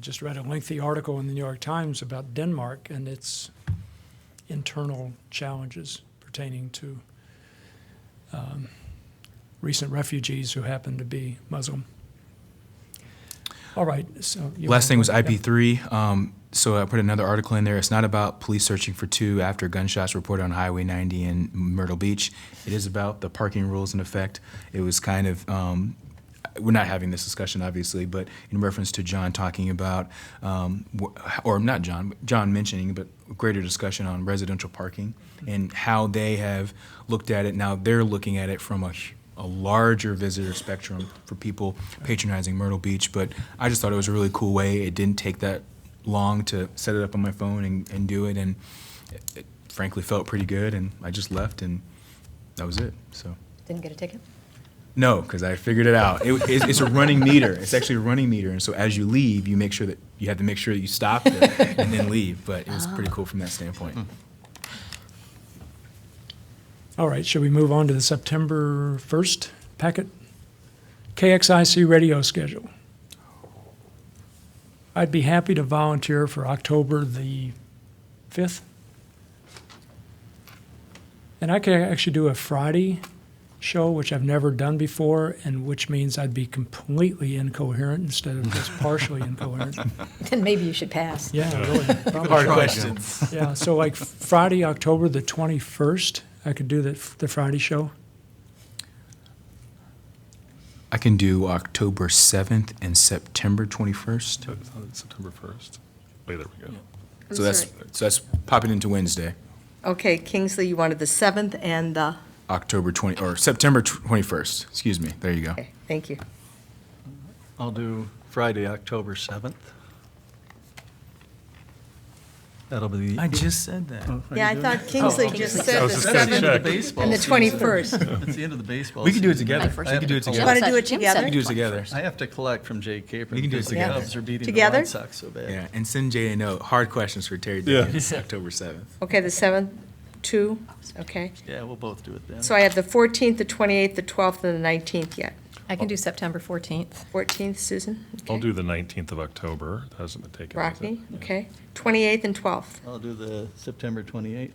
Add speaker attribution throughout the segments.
Speaker 1: just read a lengthy article in the New York Times about Denmark and its internal challenges pertaining to um, recent refugees who happen to be Muslim. All right. So you
Speaker 2: Last
Speaker 1: wanna-
Speaker 2: thing was
Speaker 1: yeah.
Speaker 2: IP3. Um, so I put another article in there. It's not about police searching for two after gunshots reported on Highway 90 in Myrtle Beach. It is about the parking rules in effect. It was kind of, um, we're not having this discussion, obviously, but in reference to John talking about, um, wh- or not John, but John mentioning, but greater discussion on residential parking and how they have looked at it. Now they're looking at it from a hu- a larger visitor spectrum for people patronizing Myrtle Beach. But I just thought it was a really cool way. It didn't take that long to set it up on my phone and, and do it. And it, it frankly felt pretty good. And I just left and that was it. So.
Speaker 3: Didn't get a ticket?
Speaker 2: No, because I figured it out. It, it's, it's a running meter. It's actually a running meter, and so as you leave, you make sure that you have to make sure that you stop and and then leave. But it was pretty cool from that standpoint.
Speaker 1: All right, should we move on to the September 1st packet? KXIC radio schedule. I'd be happy to volunteer for October the 5th. And I could actually do a Friday show, which I've never done before, and which means I'd be completely incoherent instead of just partially incoherent.
Speaker 3: Then maybe you should pass.
Speaker 1: Yeah, really. probably.
Speaker 2: Hard questions.
Speaker 1: Yeah, so like Friday, October the 21st, I could do the, the Friday show.
Speaker 2: I can do October seventh and September twenty first.
Speaker 4: So it's on September 1st. Wait, there we go.
Speaker 5: I'm
Speaker 2: So that's
Speaker 5: sorry.
Speaker 2: so that's popping into Wednesday,
Speaker 5: Okay, Kingsley, you wanted the 7th and the,
Speaker 2: October twenty or September twenty first. Excuse me. There you go.
Speaker 5: okay, thank you.
Speaker 6: I'll do Friday, October 7th. That'll be the.
Speaker 2: just said that.
Speaker 6: Oh, are
Speaker 5: Yeah, I
Speaker 6: you doing
Speaker 5: thought
Speaker 6: it?
Speaker 5: Kingsley just said
Speaker 4: I
Speaker 5: the
Speaker 4: was just gonna
Speaker 6: End of
Speaker 5: 7th.
Speaker 4: check.
Speaker 6: the baseball
Speaker 5: and the
Speaker 6: season.
Speaker 5: 21st.
Speaker 6: It's the end of the baseball.
Speaker 2: We can do it
Speaker 6: season.
Speaker 2: together.
Speaker 6: I
Speaker 2: We
Speaker 6: have
Speaker 2: can do it
Speaker 6: to
Speaker 2: together.
Speaker 5: Want
Speaker 2: We
Speaker 5: to do it
Speaker 3: Jim
Speaker 5: together?
Speaker 3: said
Speaker 2: can do it together.
Speaker 6: I have to collect from Jay Capron.
Speaker 2: We can do it
Speaker 6: because
Speaker 2: together.
Speaker 6: The Cubs are beating the
Speaker 5: Together?
Speaker 6: White Sox so bad.
Speaker 2: Yeah, and send Jay a note. Hard questions for Terry
Speaker 4: Yeah.
Speaker 2: Diggins, October seventh.
Speaker 5: Okay, the 7th, 2, okay.
Speaker 6: Yeah, we'll both do it then.
Speaker 5: So I have the 14th, the 28th, the 12th, and the 19th yet.
Speaker 3: I can do September 14th.
Speaker 5: 14th, Susan?
Speaker 4: I'll
Speaker 5: Okay.
Speaker 4: do the 19th of October. That hasn't been taken. has it?
Speaker 5: Rockne, okay. 28th and 12th.
Speaker 6: I'll do the September 28th.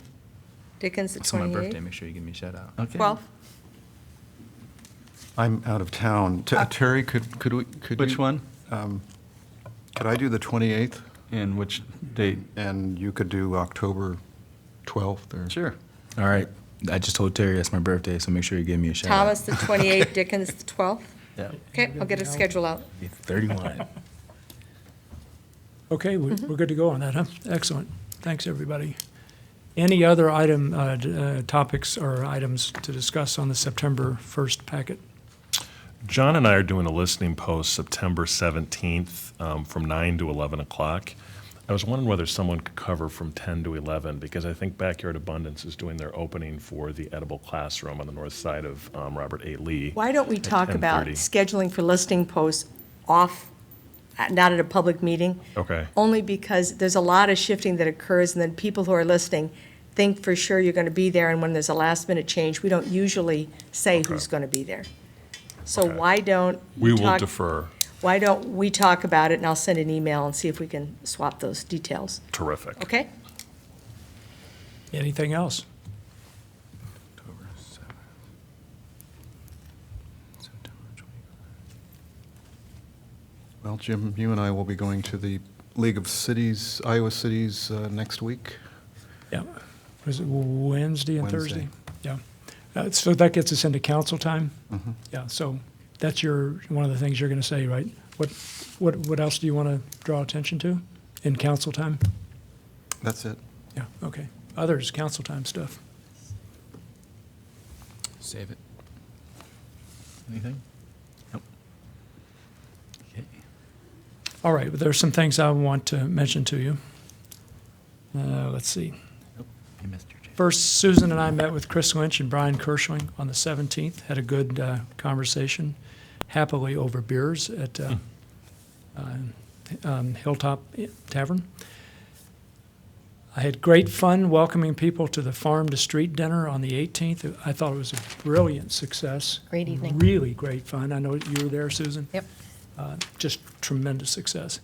Speaker 5: Dickens, the
Speaker 2: It's my birthday.
Speaker 5: 28th.
Speaker 2: Make sure you give me a shout out.
Speaker 6: Okay.
Speaker 5: 12th,
Speaker 7: I'm out of town. T- Terry, could, could we, could
Speaker 6: Uh, Which
Speaker 7: you- um,
Speaker 6: one?
Speaker 7: Could I do the 28th,
Speaker 6: And which date?
Speaker 7: and you could do October 12th, or?
Speaker 6: Sure.
Speaker 2: All right. I just told Terry that's my birthday, so make sure you give me a shout
Speaker 5: Thomas, the 28th, Dickens, the 12th.
Speaker 6: Yeah.
Speaker 5: Okay, I'll get a schedule out.
Speaker 2: out. Thirty-one.
Speaker 1: Okay, we- we're good to go on that, huh? Excellent. Thanks, everybody. Any other item, uh, d- uh, topics or items to discuss on the September 1st packet?
Speaker 4: John and I are doing a listening post September 17th um, from 9 to 11 o'clock. I was wondering whether someone could cover from 10 to 11 because I think Backyard Abundance is doing their opening for the edible classroom on the north side of um, Robert A. Lee.
Speaker 5: Why don't we
Speaker 4: at
Speaker 5: talk about
Speaker 4: 10:30.
Speaker 5: scheduling for listing posts off, not at a public meeting?
Speaker 4: Okay.
Speaker 5: Only because there's a lot of shifting that occurs, and then people who are listening think for sure you're going to be there, and when there's a last-minute change, we don't usually say
Speaker 4: Okay.
Speaker 5: who's going to be there. So
Speaker 4: Okay.
Speaker 5: why don't?
Speaker 4: We
Speaker 5: you
Speaker 4: will
Speaker 5: talk-
Speaker 4: defer.
Speaker 5: Why don't we talk about it, and I'll send an email and see if we can swap those details,
Speaker 4: Terrific.
Speaker 5: okay?
Speaker 1: Anything else?
Speaker 2: October 7th. September 20th.
Speaker 7: Well, Jim, you and I will be going to the League of Cities, Iowa Cities, uh, next week.
Speaker 1: Yeah. Was it Wednesday and Thursday?
Speaker 7: Wednesday.
Speaker 1: Yeah. Uh, So that gets us into council time? Yeah, so that's your, one of the things you're going to say, right? What, what, what else do you want to draw attention to in council time?
Speaker 7: That's it.
Speaker 1: Yeah, okay. Others, council time stuff.
Speaker 2: Save it.
Speaker 6: Anything?
Speaker 1: All right, but there's some things I want to mention to you. Uh, let's see.
Speaker 2: Hey, Mr. J.
Speaker 1: First, Susan and I met with Chris Lynch and Brian Kershling on the 17th, had a good uh, conversation, happily over beers at uh, uh, um, Hilltop Tavern. I had great fun welcoming people to the Farm to Street dinner on the 18th. I thought it was a brilliant success.
Speaker 3: Great evening.
Speaker 1: Really great fun. I know you were there, Susan.
Speaker 3: Yep.
Speaker 1: Just tremendous success.